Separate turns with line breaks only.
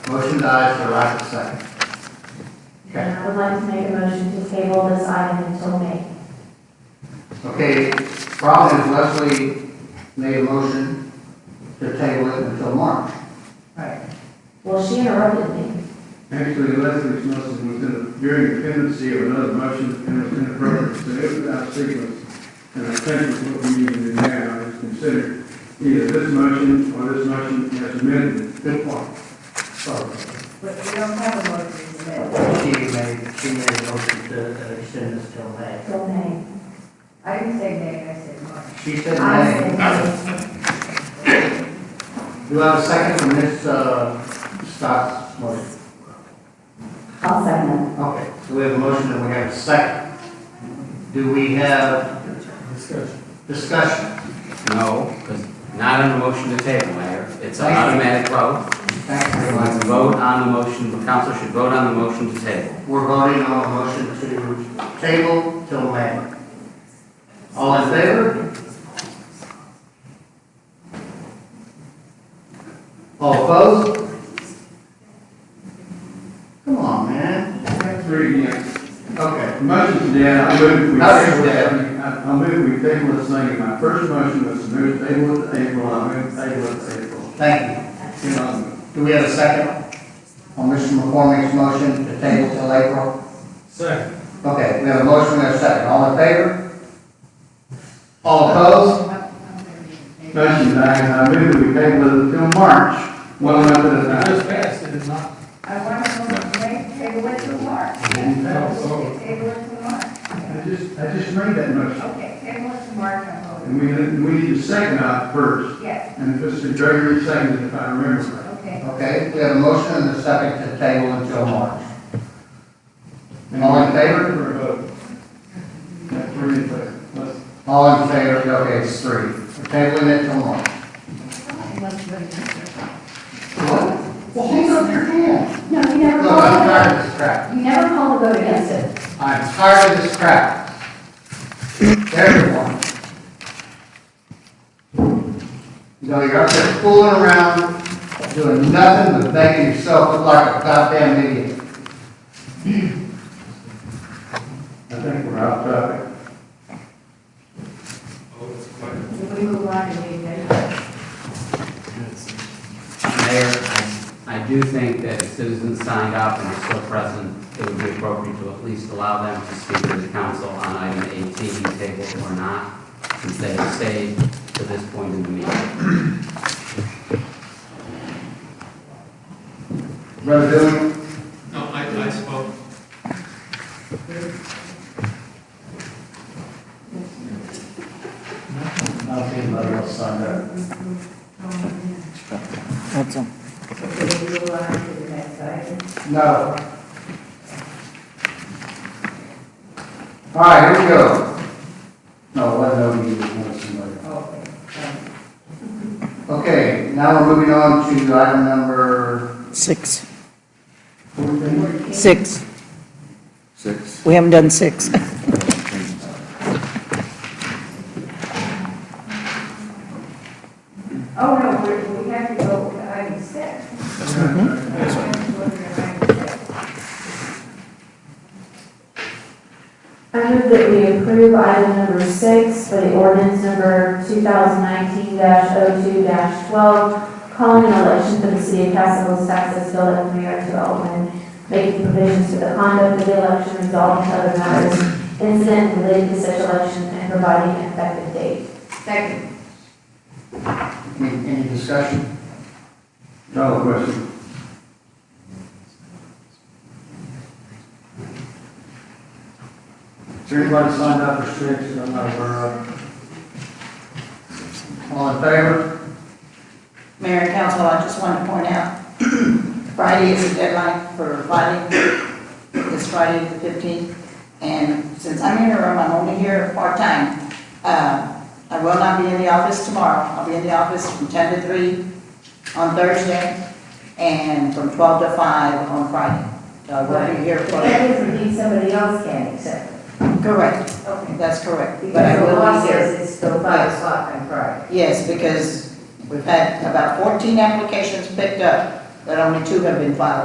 Motion dies for lack of second.
And I would like to make a motion to table this item until May.
Okay, problem is Leslie made a motion to table it until March.
Well, she interrupted me.
Actually, Leslie's motion was in, during the pendency of another motion, and it was inappropriate, so it was out of sequence. And I think it's what we need to do now is consider either this motion or this motion as amended.
Good point. So
But we don't have a motion to amend.
She made, she made a motion to
uh,
extend this till May.
Till May.
I didn't say nay, I said March.
she said
I
nay.
said May.
Do I have a second from Ms. uh, Scott's motion?
I'll second
Okay, so we have a motion and we have a second. Do we have discussion?
No, because not on the motion to table, Mayor. It's an automatic vote.
Thank you very
Let's
much.
vote on the motion, the council should vote on the motion to table.
We're voting on a motion to table till May. All in favor? All opposed? Come on, man.
Three, yes.
Okay,
Motion's down, I move we
Motion's
table it.
down.
I I move we table this thing. My first motion was to move table it to April, I move table it to April.
thank
Get on
you. Do we have a second on Mr. McCormick's motion to table till April?
Second.
Okay, we have a motion, we have a second. All in favor? All opposed?
Motion dies, I move we table it until March, one month at a time.
I want to make, table it to March. Table it to March.
I just, I just made that motion,
Okay, table it to March, I'm voting.
and we, we need to second out first,
Yes,
and if Mr. Gregory seconded, if I remember right.
okay.
Okay, we have a motion and a second to table until March.
And
All in favor?
we're voting. That's where you put it. Let's-
All in favor, okay, it's three. We're tabling it till March. What? Well, hang up your hand.
it. No, you never
Look, I'm
called,
tired of this crap.
you never called a vote against it.
I'm tired of this crap. Everyone. You know, you're up there fooling around, doing nothing but making yourself look like a goddamn idiot.
I think we're off topic.
If we move on to the agenda,
Mayor, I I do think that if citizens signed up and are still present, it would be appropriate to at least allow them to speak to the council on item 18, table or not, since they have stayed to this point in the meeting.
Brother Dillon,
No, I, I spoke.
I don't think anybody else signed up.
if Oh, we move on to the next item.
No. All right, here we go. No, let no be, let somebody.
Okay. um,
Okay, now we're moving on to item number
Six.
fourteen.
Six.
Six.
We haven't done six.
Oh, no, we're- we have to go to item six. We have to go to item six.
I move that we approve item number six for the ordinance number 2019-02-12, calling an election for the city of Castle Hills, Texas, Bill of Mayor to Alderman, making provisions for the conduct of the election, resolving other matters incident related to such election, and providing an effective date.
Second,
Any, any discussion?
Call the question.
Is there anybody signed up for six? I'm not aware of. All in favor?
Mayor and council, I just want to point out, Friday is the deadline for filing, this Friday the 15th, and since I'm in the room, I'm only here part-time, uh, I will not be in the office tomorrow, I'll be in the office from 10 to 3 on Thursday, and from 12 to 5 on Friday, so I will be here
But
for...
that doesn't mean somebody else can accept it.
Correct,
okay.
that's correct, but
Because
I
the
will
law
be here.
says it's still five o'clock on Friday.
Yes, because we've had about 14 applications picked up that only two have been filed.